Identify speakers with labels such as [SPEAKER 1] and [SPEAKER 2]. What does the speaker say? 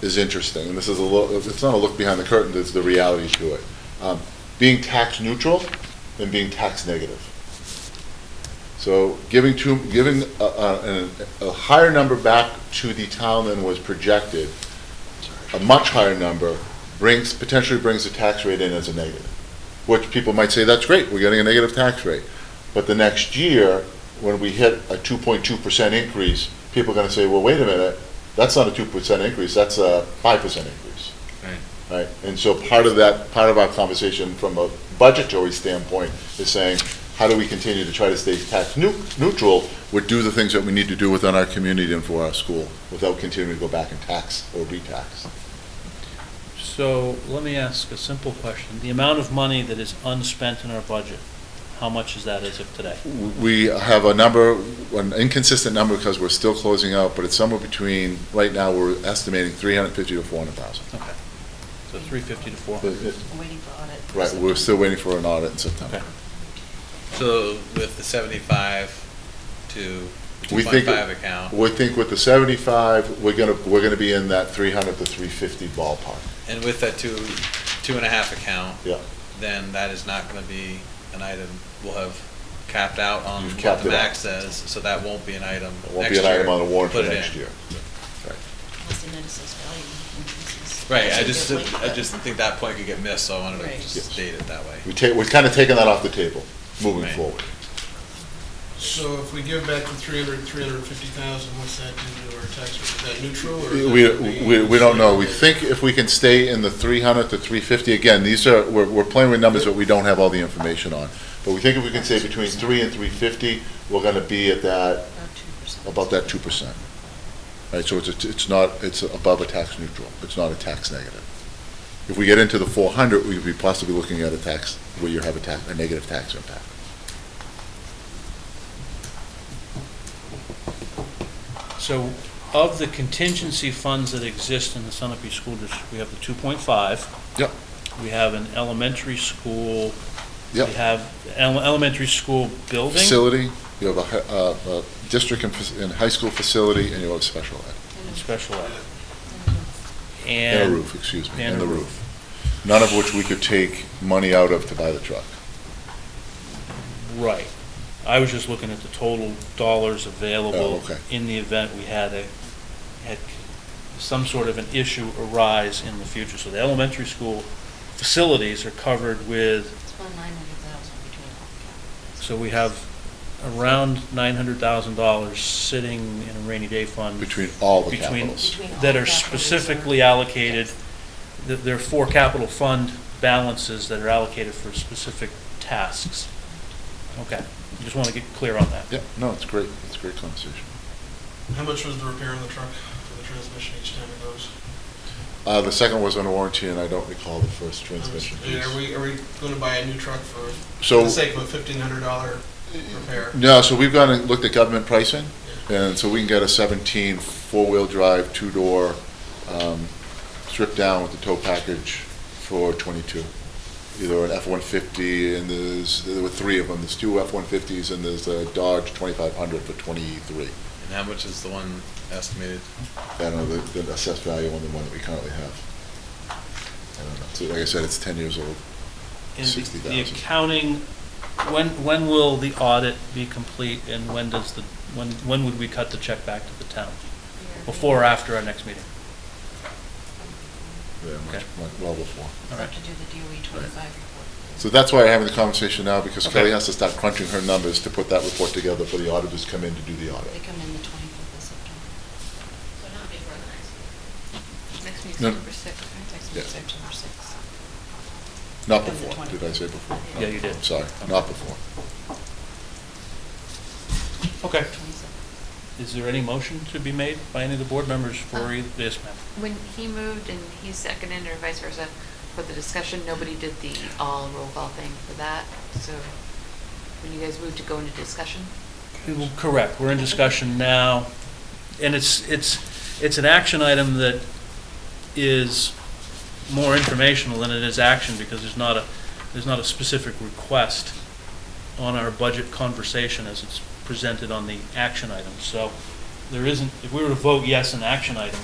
[SPEAKER 1] is interesting, and this is a look, it's not a look behind the curtain, it's the reality to it. Um, Being tax neutral and being tax negative. So giving to, giving a, a, a higher number back to the town than was projected, a much higher number, brings, potentially brings the tax rate in as a negative. Which people might say, that's great, we're getting a negative tax rate. But the next year, when we hit a two point two percent increase, people are gonna say, well, wait a minute, that's not a two percent increase, that's a five percent increase. Right, and so part of that, part of our conversation from a budgetary standpoint is saying, how do we continue to try to stay tax neu- neutral, but do the things that we need to do within our community and for our school, without continuing to go back and tax or re-tax.
[SPEAKER 2] So let me ask a simple question. The amount of money that is unspent in our budget, how much is that as of today?
[SPEAKER 1] We have a number, an inconsistent number because we're still closing out, but it's somewhere between, right now, we're estimating three hundred fifty to four hundred thousand.
[SPEAKER 2] Okay. So three fifty to four.
[SPEAKER 3] waiting for audit.
[SPEAKER 1] Right, we're still waiting for an audit in September.
[SPEAKER 2] Okay.
[SPEAKER 4] So with the seventy-five to two
[SPEAKER 1] We think-
[SPEAKER 4] point five account,
[SPEAKER 1] We think with the seventy-five, we're gonna, we're gonna be in that three hundred to three fifty ballpark.
[SPEAKER 4] and with that two, two and a half account,
[SPEAKER 1] Yeah,
[SPEAKER 4] then that is not gonna be an item we'll have capped out on
[SPEAKER 1] You've
[SPEAKER 4] what
[SPEAKER 1] capped
[SPEAKER 4] the
[SPEAKER 1] it out.
[SPEAKER 4] max says, so that won't be an item
[SPEAKER 1] it won't be
[SPEAKER 4] next
[SPEAKER 1] an item on the
[SPEAKER 4] year.
[SPEAKER 1] warrant for
[SPEAKER 4] Put it
[SPEAKER 1] next
[SPEAKER 4] in.
[SPEAKER 1] year.
[SPEAKER 3] What's the net assessed value increases?
[SPEAKER 4] Right, I
[SPEAKER 3] That's a
[SPEAKER 4] just,
[SPEAKER 3] good way.
[SPEAKER 4] I just think that point could get missed, so I wanted to
[SPEAKER 3] Right.
[SPEAKER 1] Yes.
[SPEAKER 4] just state it that way.
[SPEAKER 1] We take, we're kinda taking that off the table, moving
[SPEAKER 4] Right.
[SPEAKER 1] forward.
[SPEAKER 5] So if we give back the three hundred, three hundred and fifty thousand, what's that do to our tax rate? Is that neutral or? is
[SPEAKER 1] We,
[SPEAKER 5] that gonna be-
[SPEAKER 1] we, we don't know. We think if we can stay in the three hundred to three fifty, again, these are, we're, we're playing with numbers that we don't have all the information on. But we think if we can stay between three and three fifty, we're gonna be at that,
[SPEAKER 3] About 2%.
[SPEAKER 1] about that two percent. Right, so it's, a- it's not, it's above a tax neutral. It's not a tax negative. If we get into the four hundred, we could be possibly looking at a tax, where you have a tax, a negative tax impact.
[SPEAKER 2] So of the contingency funds that exist in the Sunapee School District, we have the two point five.
[SPEAKER 1] Yep.
[SPEAKER 2] We have an elementary school. We
[SPEAKER 1] Yep,
[SPEAKER 2] have ele- elementary school building.
[SPEAKER 1] facility, you have a, hi- uh, a district and, fac- and high school facility, and you have special ed.
[SPEAKER 2] and Special ed.
[SPEAKER 1] And a
[SPEAKER 2] And
[SPEAKER 1] roof, excuse me,
[SPEAKER 2] and
[SPEAKER 1] and
[SPEAKER 2] a
[SPEAKER 1] the roof. None of which we could take money out of to buy the truck.
[SPEAKER 2] Right. I was just looking at the total dollars
[SPEAKER 1] Oh,
[SPEAKER 2] available
[SPEAKER 1] okay.
[SPEAKER 2] in the event we had a, had some sort of an issue arise in the future. So the elementary school facilities are covered with,
[SPEAKER 3] It's about 900,000 between all the
[SPEAKER 2] so we have around nine hundred thousand dollars sitting in a rainy day fund.
[SPEAKER 1] Between all the
[SPEAKER 2] Between-
[SPEAKER 1] capitals.
[SPEAKER 3] Between all
[SPEAKER 2] That
[SPEAKER 3] the uh,
[SPEAKER 2] are
[SPEAKER 3] capital reserve.
[SPEAKER 2] specifically allocated, th- there are four capital fund balances that are allocated for specific tasks. Okay, just want to get clear on that.
[SPEAKER 1] Yeah, no, it's great, it's a great conversation.
[SPEAKER 5] How much was the repair on the truck for the transmission each time it goes?
[SPEAKER 1] Uh, the second was under warranty, and I don't recall the first transmission
[SPEAKER 5] And Are
[SPEAKER 1] piece.
[SPEAKER 5] we, are we gonna buy a new truck for, for
[SPEAKER 1] So-
[SPEAKER 5] the sake of a fifteen hundred dollar repair?
[SPEAKER 1] No, so we've gone and looked at government pricing, and so we can get a seventeen, four-wheel drive, two-door, um, stripped down with the tow package for twenty-two. Either an F-150, and there's, there were three of them, there's two F-150s, and there's a Dodge twenty-five hundred for twenty-three.
[SPEAKER 4] And how much is the one estimated?
[SPEAKER 1] I don't know, the, the assessed value on the one that we currently have. I don't know, so like I said, it's ten years old.
[SPEAKER 2] And the-
[SPEAKER 1] 60,000.
[SPEAKER 2] The accounting, when, when will the audit be complete and when does the, when, when would we cut the check back to the town?
[SPEAKER 3] Yeah.
[SPEAKER 2] Before or after our next meeting?
[SPEAKER 1] Yeah, much,
[SPEAKER 2] Okay.
[SPEAKER 1] much- well before.
[SPEAKER 3] We
[SPEAKER 2] All right.
[SPEAKER 3] have to do the DOE 25 report.
[SPEAKER 1] So that's why I'm having the conversation now, because
[SPEAKER 2] Okay.
[SPEAKER 1] Kelly has to start crunching her numbers to put that report together for the auditors to come in to do the
[SPEAKER 3] They
[SPEAKER 1] audit.
[SPEAKER 3] come in the 25th of September.
[SPEAKER 6] So not being organized. Next meeting's
[SPEAKER 1] No.
[SPEAKER 6] September sixth, right?
[SPEAKER 3] Next
[SPEAKER 1] Yeah.
[SPEAKER 3] week's September 6th.
[SPEAKER 1] Not
[SPEAKER 3] On the
[SPEAKER 1] before,
[SPEAKER 3] 20th.
[SPEAKER 1] did I say before? No,
[SPEAKER 3] Yeah,
[SPEAKER 2] you did.
[SPEAKER 1] Sorry, not before.
[SPEAKER 2] Okay.
[SPEAKER 3] 27th.
[SPEAKER 2] Is there any motion to be made by any of the board members for either, yes, ma'am?
[SPEAKER 6] When he moved and he seconded or vice versa for the discussion, nobody did the all roll call thing for that. So when you guys moved to go into discussion,
[SPEAKER 2] We will- Correct, we're in discussion now, and it's, it's, it's an action item that is more informational than it is action, because there's not a, there's not a specific request on our budget conversation as it's presented on the action item, so there isn't, if we were to vote yes on action item,